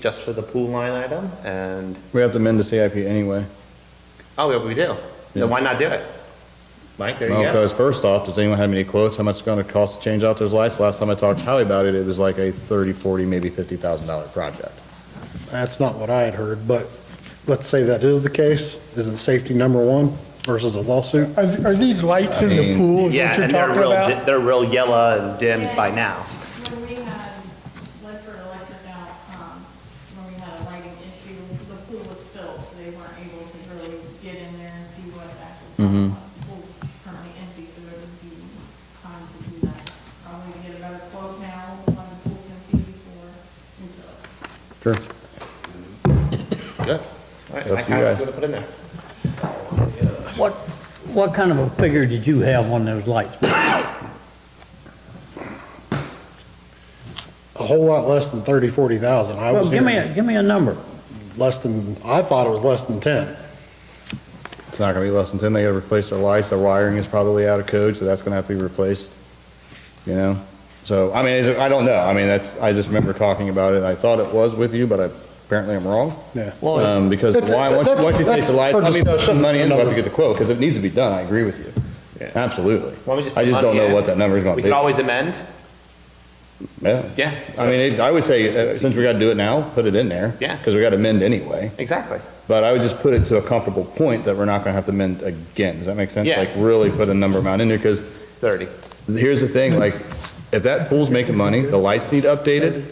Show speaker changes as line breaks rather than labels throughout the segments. just for the pool line item, and,
We have to amend the CIP anyway.
oh, yeah, we do.
Yeah.
So why not do it? Mike, there you
Well,
go.
because first off, does anyone have any quotes, how much it's gonna cost to change out those lights? Last time I talked to Howie about it, it was like a thirty, forty, maybe fifty thousand dollar project.
That's not what I had heard, but let's say that is the case. Isn't safety number one versus a lawsuit?
Are, are these lights in
I
the
mean-
pool, is
Yeah,
what you're
and they're
talking
real,
about?
di- they're real yellow and dimmed by
Yes.
now.
When we had Ledford Electric out, um, when we had a lighting issue, the pool was filled, so they weren't able to really get in there and see what actually problem was. The pool's currently empty, so it would be time to do that. Probably get a better quote now on the pool empty before we fill it.
Sure.
Good. All right,
Up
Mike,
to you
how are you
guys.
gonna put in there?
What, what kind of a figure did you have on those lights?
A whole lot less than 30, 40,000. I
Well,
was
give me, a
hearing
give me a number.
less than, I thought it was less than 10.
It's not gonna be less than ten, they gotta replace their lights, their wiring is probably out of code, so that's gonna have to be replaced, you know? So, I mean, is it- I don't know, I mean, that's, I just remember talking about it, I thought it was with you, but I- apparently I'm wrong.
Yeah.
Um, because
That's-
why, once,
that's-
once you take
that's
the lights, I
for
mean, put some
discussion
money in, we'll have to
another-
get the quote, because it needs to be done, I agree with you.
Yeah.
Absolutely.
Why don't we
I
put
just don't
money
know
in?
what that number's gonna
We
be.
could always amend.
Yeah.
Yeah.
I mean, it- I would say, uh, since we gotta do it now, put it in there.
Yeah.
Because we gotta amend anyway.
Exactly.
But I would just put it to a comfortable point that we're not gonna have to amend again. Does that make sense?
Yeah.
Like, really put a number amount in there, because
Thirty.
here's the thing, like, if that pool's making money, the lights need updated,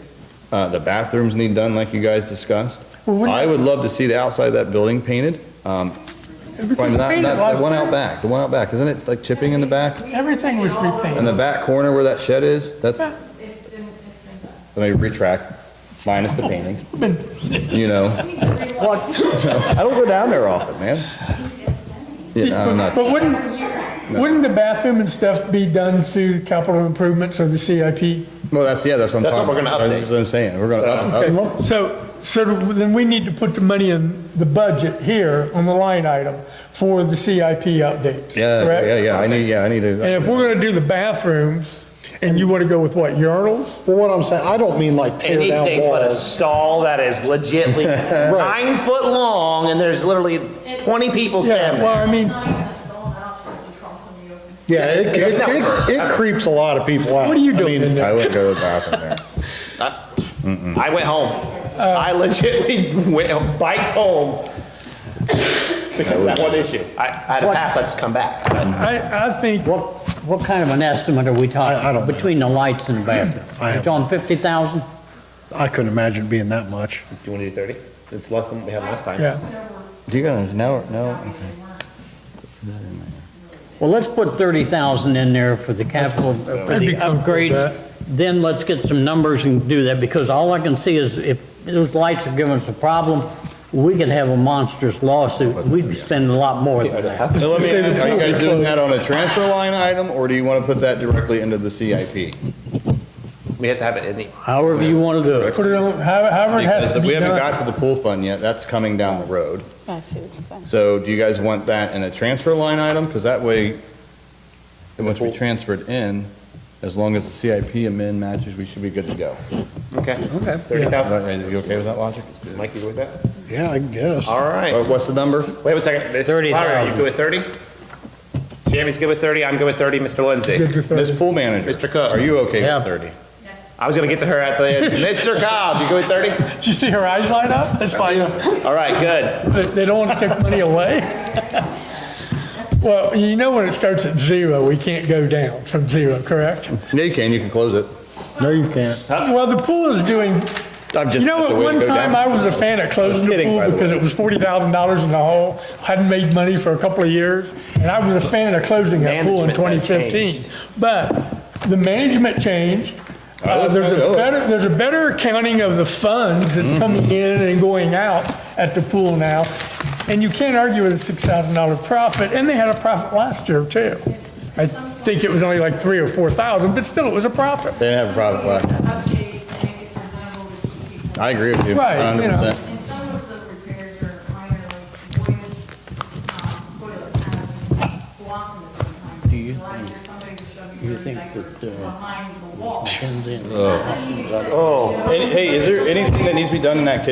uh, the bathrooms need done like you guys discussed.
Well, wouldn't-
I would love to see the outside of that building painted. Um,
Because
not-
painted
not-
last
The one
time.
out back, the one out back, isn't it like chipping in the back?
Everything was
In
repainted.
the back corner where that shed is, that's, let
It's been, it's been done.
me retract, minus the painting,
Been-
you know? I don't go down there often, man. Yeah, I'm not,
But wouldn't, wouldn't the bathroom and stuff be done through capital improvements or the CIP?
well, that's, yeah, that's what I'm
That's what
talking
we're gonna
about.
update.
That's what I'm saying, we're gonna up- up-
Okay, So, so then we need to put the money in the budget here on the line item for the CIP updates,
yeah,
correct?
yeah, yeah, I need, yeah, I need to.
And if we're gonna do the bathrooms, and you wanna go with what, urinals?
Well, what I'm saying, I don't mean like tear down
Anything but a
walls.
stall that is legitly nine foot long, and there's literally twenty people standing there.
Yeah, well, I mean,
It's not even a stall house, it's a trunk when you open.
Yeah, it, it, it- it creeps a lot of people out.
what are you
I
doing
mean,
in
I
there?
wouldn't go to the bathroom there.
I went home. I legitly went, biked home because of that one issue. I, I had a
What?
pass, I just come back.
I, I think,
What, what kind of an estimate are we
I- I don't
talking
know.
between the lights and the bathroom?
I-
It's on 50,000?
I couldn't imagine it being that much.
Do you want to do 30? It's less than we had last time.
yeah.
Do you guys, no, no,
Well, let's put 30,000 in there for the capital,
uh,
for
I'd be
the
comfortable with
upgrades. Then let's get some numbers and do that, because all I can see is if those lights are giving us a problem, we could have a monstrous lawsuit. We'd be spending a lot more than that.
So let me,
Say the
ask, are you
pool's
guys doing
closed.
that on a transfer line item, or do you wanna put that directly into the CIP?
We have to have it in the,
However you want to do it.
Put it on, however however it has
Because
to be
we haven't
done.
got to the pool fund yet, that's coming down the road.
I see what you're saying.
So do you guys want that in a transfer line item? Because that way, it must be transferred in, as long as the CIP amend matches, we should be good to go.
okay.
Okay.
30,000.
Are you okay with that logic?
Mike, you good with that?
Yeah, I guess.
All right.
Uh, What's the number?
Wait one second. Miss Lara, Are you
30,000.
good with 30? Jamie's good with 30, I'm good with 30, Mr. Lindsay.
Did your thing.
Miss Pool Manager,
Mr. Cook.
are you okay
Yeah.
with 30?
I was going to get to her at the end. Mr. Cobb, you good with 30?
Did you see her eyes light up? That's fine.
All right, good.
They- They don't want to take money away. Well, you know when it starts at zero, we can't go down from zero, correct?
No, you can, you can close it.
No, you can't.
Well, the pool is doing,
I'm just-
you know,
the
at
way to
one
go
time I
down.
was a fan of closing the
kidding, by
pool
the
because
way.
it was forty thousand dollars in the hole, hadn't made money for a couple of years, and I was a fan of closing that pool in twenty
Management had
fifteen. But the management changed. Uh,
was
there's a
gonna do it.
better, there's a better accounting of the funds that's
Mm-hmm.
coming in and going out at the pool now. And you can't argue with a six thousand dollar profit, and they had a profit last year too. I think it was only like three or four thousand, but still it was a profit.
They didn't have a product left.
Update to make it presentable to keep people.
I agree with you.
Right, you know.
100%.
And some of the repairs are minor, like voice, um, toilet pads, blocking sometimes. Do you? Last year, somebody was shoving
You
really
think
like
that,
you're
uh,
behind the wall.
And then-
That's an easy-
Hey, is there anything that needs to be done in that kitchen